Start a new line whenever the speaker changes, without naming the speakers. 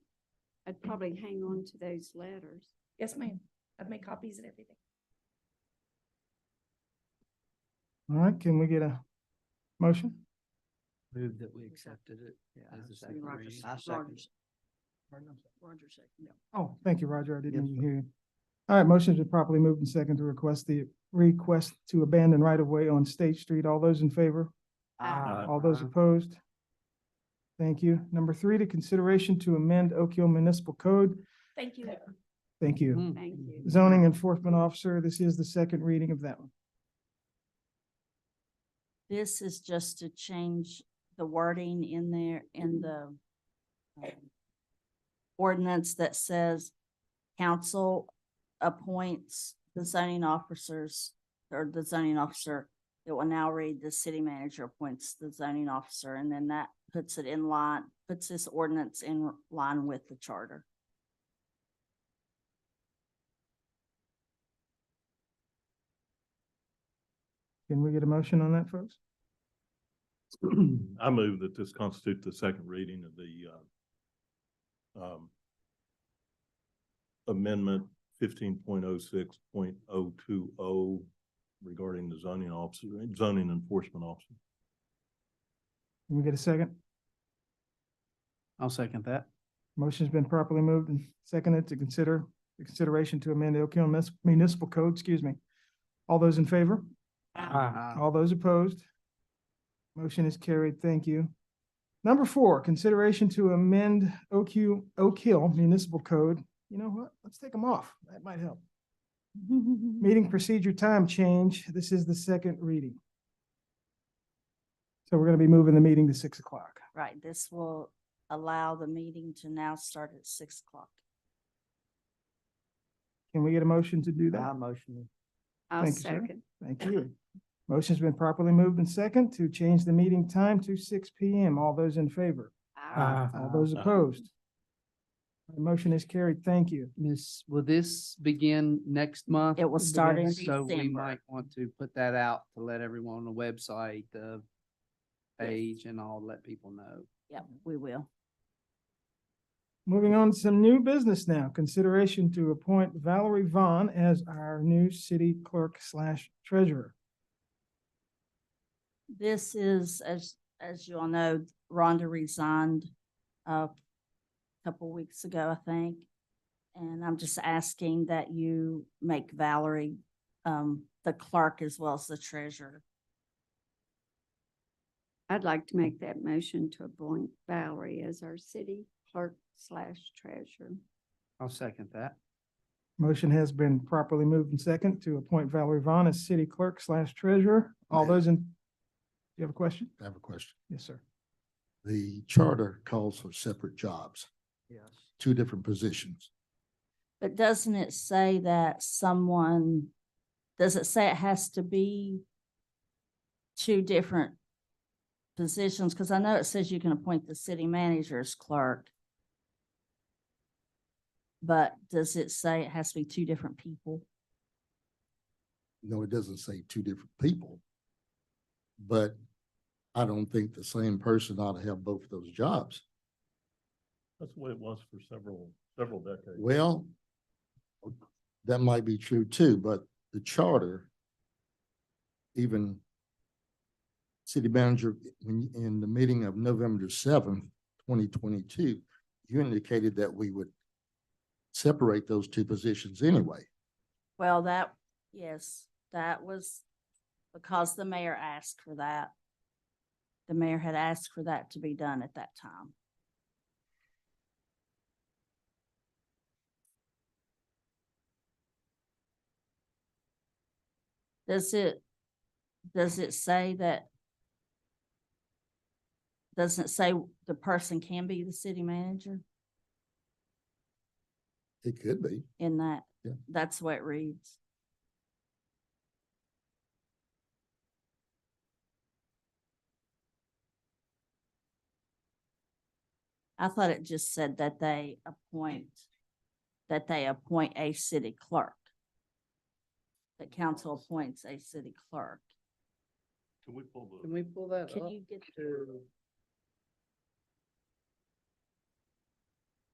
I'd probably hang on to those letters.
Yes, ma'am. I've made copies and everything.
All right, can we get a motion?
Move that we
accepted
accepted it.
Yeah.
As a
I mean,
second
Roger
reading.
s-
I second Hmm.
Roger's- Roger second, yeah.
Oh, thank you, Roger. I didn't
Yes,
even hear you. All right, motion to properly moved and second to request the request to abandon right of way on State Street. All those in favor?
Uh,
Aye.
All those opposed? Thank you. Number three, to consideration to amend Oak Hill Municipal Code.
Thank you.
Thank you.
Mm.
Thank you.
Zoning Enforcement Officer, this is the second reading of that one.
This is just to change the wording in there, in the um, ordinance that says council appoints the zoning officers or the zoning officer. It will now read the city manager appoints the zoning officer, and then that puts it in line, puts this ordinance in line with the charter.
Can we get a motion on that, folks?
I move that this constitute the second reading of the uh, um, amendment fifteen point oh six point oh two oh regarding the zoning officer, zoning enforcement officer.
Can we get a second?
I'll second that.
Motion's been properly moved and seconded to consider, the consideration to amend the Oak Hill Munis- Municipal Code, excuse me. All those in favor? All those opposed? Motion is carried. Thank you. Number four, consideration to amend Oak Hill, Oak Hill Municipal Code. You know what? Let's take them off. That might help. Meeting procedure time change. This is the second reading. So we're going to be moving the meeting to six o'clock.
Right, this will allow the meeting to now start at six o'clock.
Can we get a motion to do that?
I motion.
I'll
Thank you, sir.
second.
Thank you. Motion's been properly moved and second to change the meeting time to six P M. All those in favor?
Aye.
All those opposed? The motion is carried. Thank you.
Miss, will this begin next month?
It will start in
So we
December.
might want to put that out to let everyone on the website, the page and all, let people know.
Yep, we will.
Moving on to some new business now. Consideration to appoint Valerie Vaughn as our new city clerk slash treasurer.
This is, as, as you all know, Rhonda resigned uh, a couple weeks ago, I think. And I'm just asking that you make Valerie um, the clerk as well as the treasurer.
I'd like to make that motion to appoint Valerie as our city clerk slash treasurer.
I'll second that.
Motion has been properly moved and second to appoint Valerie Vaughn as city clerk slash treasurer. All
Ma'am.
those in, you have a question?
I have a question.
Yes, sir.
The charter calls for separate jobs,
Yes.
two different positions.
But doesn't it say that someone, does it say it has to be two different positions? Because I know it says you can appoint the city manager as clerk. But does it say it has to be two different people?
No, it doesn't say two different people. But I don't think the same person ought to have both of those jobs.
That's the way it was for several, several decades.
Well, that might be true too, but the charter, even city manager, when, you- in the meeting of November seventh, twenty twenty-two, you indicated that we would separate those two positions anyway.
Well, that, yes, that was because the mayor asked for that. The mayor had asked for that to be done at that time. Does it, does it say that? Doesn't it say the person can be the city manager
It could be.
in that?
Yeah.
That's what it reads. I thought it just said that they appoint, that they appoint a city clerk. That council appoints a city clerk.
Can we pull
Can we pull that
Can
up
you get,
to